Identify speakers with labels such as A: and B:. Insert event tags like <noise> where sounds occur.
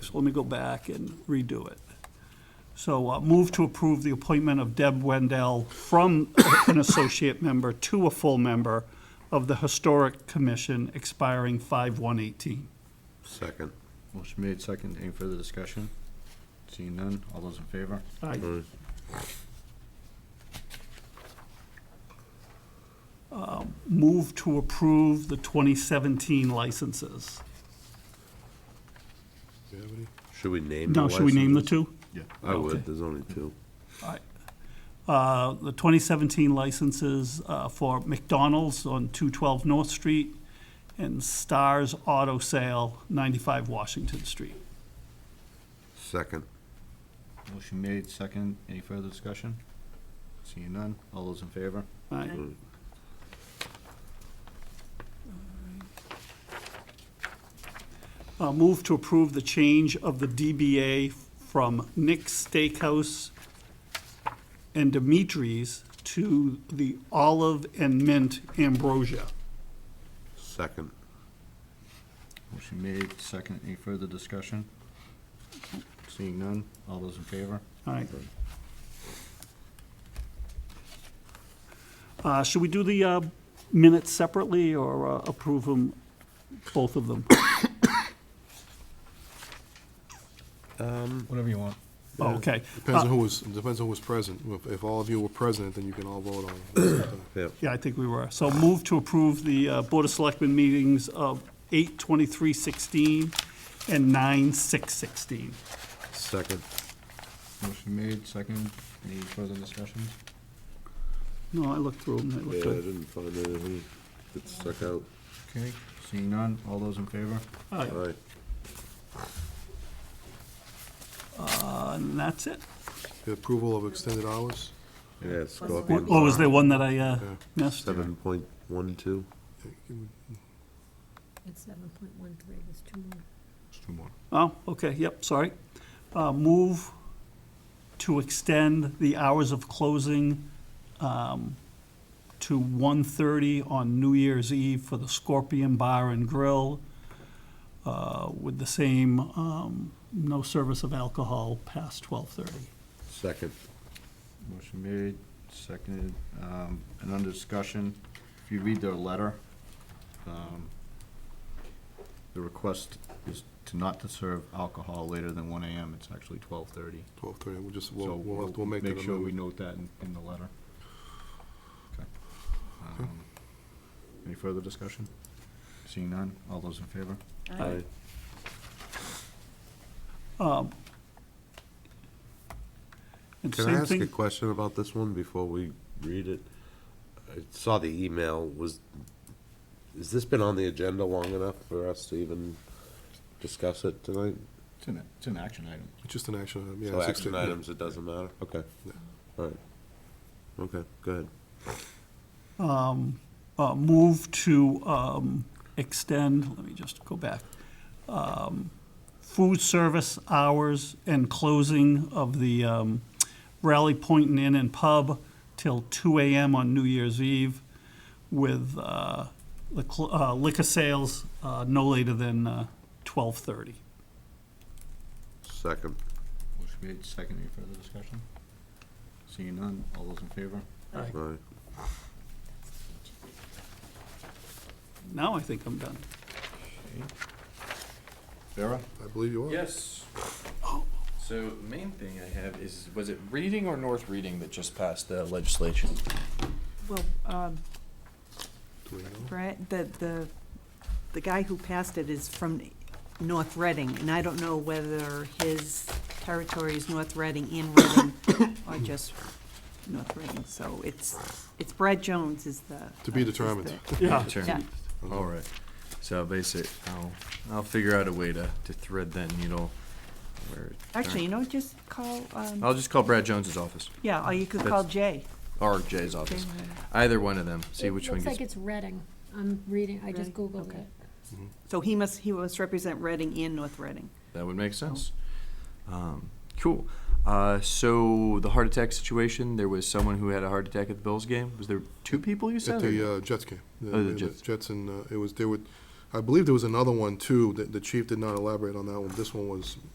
A: so let me go back and redo it. So uh, move to approve the appointment of Deb Wendell from <coughs> an associate member to a full member of the Historic Commission expiring 5/118.
B: Second.
C: Motion made, second. Any further discussion? Seeing none, all those in favor?
A: Aye. Uh, Move to approve the 2017 licenses.
B: Should we name? the
A: Now, should we name the
B: licenses?
A: two?
C: Yeah.
B: I
A: Okay.
B: would, there's only two.
A: All right. Uh, The 2017 licenses uh, for McDonald's on 212 North Street and Stars Auto Sale, 95 Washington Street.
B: Second.
C: Motion made, second. Any further discussion? Seeing none, all those in favor?
A: All right.
B: Mm.
A: Uh, Move to approve the change of the DBA from Nick's Steakhouse and Dimitri's to the Olive and Mint Ambrosia.
B: Second.
C: Motion made, second. Any further discussion? Seeing none, all those in favor?
A: All right. Uh, Should we do the uh, minutes separately or uh, approve them, both of them?
C: Whatever you want.
A: Oh, Okay.
D: Depends
A: Uh,
D: on who was, depends on who was present. If, if all of you were present, then you can all vote on it.
B: Yep.
A: Yeah, I think we were. So move to approve the uh, Board of Selectmen meetings of 8/23/16 and 9/6/16.
B: Second.
C: Motion made, second. Any further discussions?
A: No, I looked through them, they
B: Yeah, I
A: looked good.
B: didn't find anything that stuck out.
C: Okay, seeing none, all those in favor?
A: All right,
B: All right.
A: uh, And that's it.
D: The approval of extended hours,
B: Yeah,
A: Or
B: Scorpion.
A: or Oh, was there one that I uh, missed?
B: Seven point one two.
E: It's seven point one three, there's two more.
C: There's two more.
A: Oh, okay, yep, sorry. Uh, Move to extend the hours of closing um, to 1:30 on New Year's Eve for the Scorpion Bar and Grill uh, with the same, um, no service of alcohol past 12:30.
B: Second.
C: Motion made, seconded, um, and under discussion, if you read their letter, um, the request is to not to serve alcohol later than one AM, it's actually twelve thirty.
D: twelve thirty, we'll just,
C: So
D: we'll, we'll have, we'll make that
C: sure we
D: amendment.
C: note that in, in the letter. Okay. Um, Any further discussion? Seeing none, all those in favor?
B: Aye.
A: And
B: Can
A: same
B: I ask
A: thing-
B: a question about this one before we read it? I saw the email, was, has this been on the agenda long enough for us to even discuss it tonight?
C: It's an, it's an action item.
D: It's just an action item, yeah.
B: So
D: it's
B: action
D: extended, yeah.
B: items, it doesn't matter? Okay.
D: Yeah.
B: All right. Okay, go ahead.
A: uh, move to um, extend, let me just go back, um, food service hours and closing of the um, Rally Point Inn and Pub till 2 AM on New Year's Eve with uh, the cl- uh, liquor sales uh, no later than uh, 12:30.
B: Second.
C: Motion made, second, any further discussion? Seeing none, all those in favor?
B: All right.
A: Now I think I'm done.
C: Vera?
D: I believe you are.
F: Yes. So main thing I have is, was it Reading or North Reading that just passed the legislation?
G: Well, um,
D: Do we know?
G: Brad, the, the, the guy who passed it is from North Reading, and I don't know whether his territory is North Reading and Reading, <coughs> or just North Reading, so it's, it's Brad Jones is the. uh,
D: To be
G: is the-
D: determined. Uh-huh.
A: Yeah.
G: Yeah,
F: All right. So basic, I'll, I'll figure out a way to, to thread that needle. where-
G: actually, you know, just call, um,
F: I'll just call Brad Jones's office,
G: yeah, or you could call
F: Oh. That's-
G: Jay.
F: or Jay's office,
G: Jay. uh,
F: either one of them, see
E: It
F: which one
E: Looks
F: gets.
E: like it's Reading. I'm reading, I just
G: Reading?
E: Googled
G: Okay.
E: it.
G: So he must, he must represent Reading and North Reading.
F: That would make sense.
E: Oh.
F: Um, cool. Uh, so the heart attack situation, there was someone who had a heart attack at the Bills game. Was there two people you said?
D: At
F: or-
D: the uh, Jets game.
F: Oh, the Jets.
D: and, uh, it was, there were, I believe there was another one too, that the chief did not elaborate on that one. This one was